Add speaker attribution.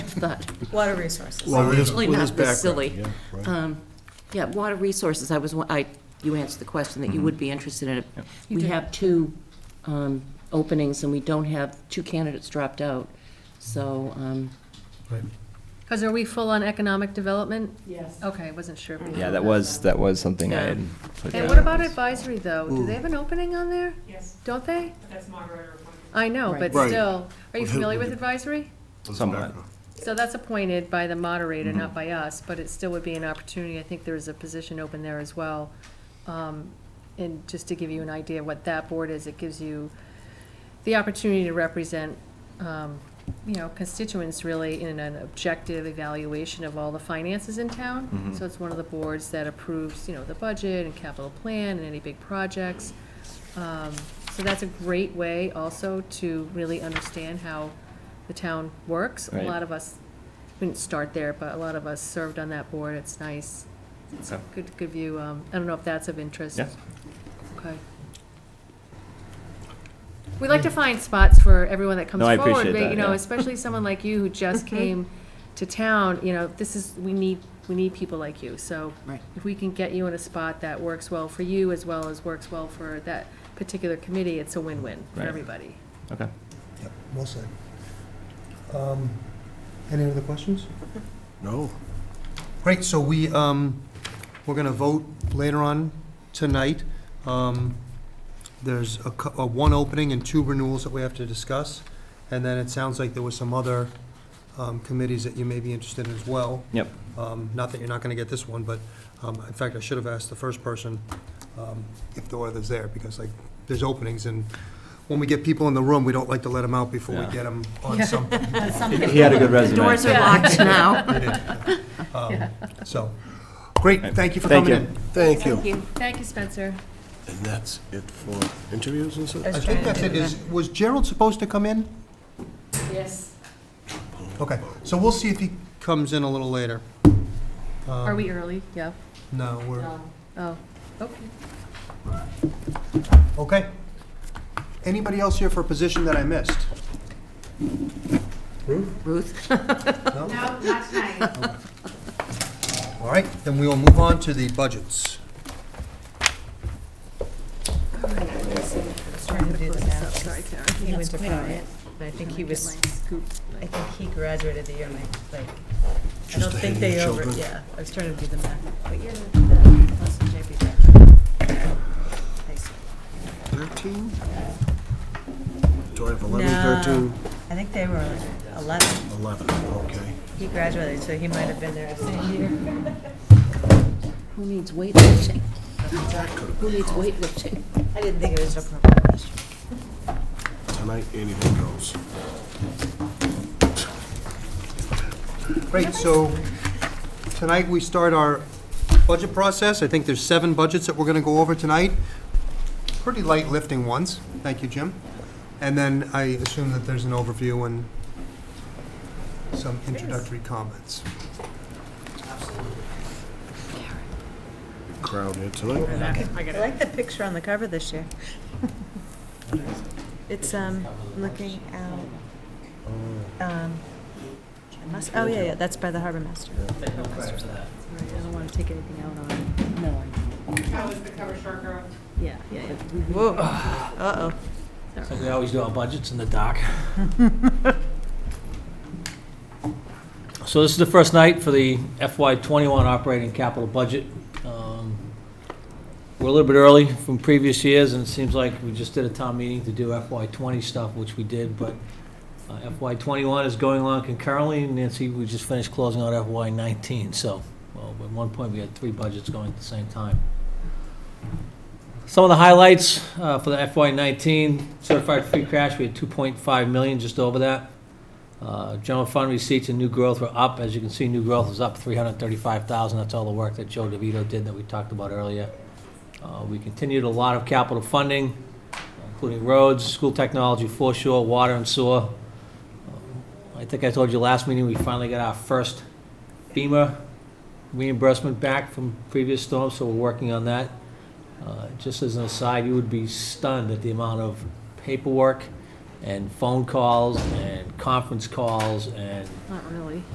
Speaker 1: thought.
Speaker 2: Water resources.
Speaker 3: Well, with his-
Speaker 1: Really
Speaker 3: with
Speaker 1: not
Speaker 3: his
Speaker 1: this
Speaker 3: background,
Speaker 1: silly.
Speaker 3: yeah, right.
Speaker 1: Um, Yeah, water resources, I was, wa- I, you answered the question
Speaker 3: Mm-hmm.
Speaker 1: that you would be interested in it. We have two um, openings, and we don't have, two candidates dropped out, so, um,
Speaker 4: Because are we full on economic development?
Speaker 1: Yes.
Speaker 4: Okay, I wasn't sure.
Speaker 5: Yeah, that was, that was something I
Speaker 1: Yeah.
Speaker 5: had put down.
Speaker 4: And what about advisory, though? Do they have an opening on there?
Speaker 6: Yes,
Speaker 4: Don't they?
Speaker 6: but that's moderator appointment.
Speaker 4: I know, but
Speaker 3: Right.
Speaker 4: still, are you
Speaker 3: Right.
Speaker 4: familiar with advisory?
Speaker 3: with his
Speaker 5: Somewhat.
Speaker 3: background.
Speaker 4: So that's appointed by the moderator, not by us, but it still would be an opportunity. I think there is a position open there as well. Um, And just to give you an idea of what that board is, it gives you the opportunity to represent, um, you know, constituents really in an objective evaluation of all the finances in town. So it's one of the boards that approves, you know, the budget and capital plan and any big projects. Um, So that's a great way also to really understand how the town works. A
Speaker 5: Right.
Speaker 4: lot of us, we didn't start there, but a lot of us served on that board. It's nice. It's a
Speaker 5: Okay.
Speaker 4: good, good view. Um, I don't know if that's of interest.
Speaker 5: Yeah.
Speaker 4: Okay. We like to find spots for everyone that comes
Speaker 5: No, I
Speaker 4: forward.
Speaker 5: appreciate
Speaker 4: but,
Speaker 5: that,
Speaker 4: You know,
Speaker 5: yeah.
Speaker 4: especially someone like you who just came to town, you know, this is, we need, we need people like you. So
Speaker 1: Right.
Speaker 4: if we can get you in a spot that works well for you as well as works well for that particular committee, it's a win-win for
Speaker 5: Right.
Speaker 4: everybody.
Speaker 5: Okay.
Speaker 7: Yep, well said. Um, Any other questions?
Speaker 3: No.
Speaker 7: Great, so we, um, we're gonna vote later on tonight. Um, There's a, cou- a one opening and two renewals that we have to discuss. And then it sounds like there were some other, um, committees that you may be interested in as well.
Speaker 5: Yep.
Speaker 7: Um, Not that you're not gonna get this one, but, um, in fact, I should have asked the first person, um, if the others there, because like, there's openings and when we get people in the room, we don't like to let them out before we
Speaker 5: Yeah.
Speaker 7: get them on something.
Speaker 5: He had a good
Speaker 1: the doors
Speaker 5: resume.
Speaker 1: are locked now.
Speaker 7: Um, So, great, thank you for
Speaker 5: Thank
Speaker 7: coming
Speaker 5: you.
Speaker 7: in.
Speaker 3: Thank you.
Speaker 4: Thank you, Spencer.
Speaker 3: And that's it for interviews and such?
Speaker 7: I think that's it. Is, was Gerald supposed to come in?
Speaker 4: Yes.
Speaker 7: Okay, so we'll see if he comes in a little later.
Speaker 4: Are we early? Yeah.
Speaker 7: No, we're,
Speaker 4: Oh, okay.
Speaker 7: okay. Anybody else here for a position that I missed?
Speaker 1: Ruth?
Speaker 6: No, not tonight.
Speaker 7: All right, then we will move on to the budgets.
Speaker 2: Trying to do the math.
Speaker 4: Oh, Sorry, Karen.
Speaker 2: He went to Florida, and I think he was, I think he graduated the year my, like, I don't
Speaker 3: Just ahead
Speaker 2: think
Speaker 3: of
Speaker 2: they
Speaker 3: your
Speaker 2: over,
Speaker 3: children.
Speaker 2: yeah, I was trying to do the math. But you're gonna do that, plus the JP back. High school.
Speaker 3: 13? Do I have 11,
Speaker 2: No,
Speaker 3: 13,
Speaker 2: I think they were eleven.
Speaker 3: 11? Okay.
Speaker 2: He graduated, so he might have been there the same year.
Speaker 1: Who needs weightlifting? Who needs weightlifting?
Speaker 2: I didn't think it was appropriate question.
Speaker 3: Tonight, anything goes.
Speaker 7: Great, so tonight we start our budget process. I think there's seven budgets that we're gonna go over tonight. Pretty light lifting ones. Thank you, Jim. And then I assume that there's an overview and some introductory comments.
Speaker 3: Crowd here tonight.
Speaker 2: I like the picture on the cover this year. It's, um, looking out, um, I must, oh, yeah, yeah, that's by the Harbor Master.
Speaker 4: Sorry, I don't want to take anything out on it.
Speaker 1: No,
Speaker 6: How was Oh, the cover short girl?
Speaker 4: Yeah, yeah, yeah.
Speaker 2: Whoa, uh-oh.
Speaker 8: Like we always do our budgets in the dark. So this is the first night for the FY twenty-one operating capital budget. Um, We're a little bit early from previous years, and it seems like we just did a town meeting to do FY twenty stuff, which we did, but uh, FY twenty-one is going on concurrently, and Nancy, we just finished closing out FY nineteen, so, well, at one point, we had three budgets going at the same time. Some of the highlights uh, for the FY19 certified free cash, we had 2.5 million, just over that. Uh, General fund receipts and new growth were up. As you can see, new growth was up 335,000. That's all the work that Joe DeVito did that we talked about earlier. Uh, We continued a lot of capital funding, including roads, school technology, foreshore, water and sewer. Uh, I think I told you last meeting, we finally got our first FEMA reimbursement back from previous storms, so we're working on that. Uh, Just as an aside, you would be stunned at the amount of paperwork and phone calls and conference calls and
Speaker 4: Not really.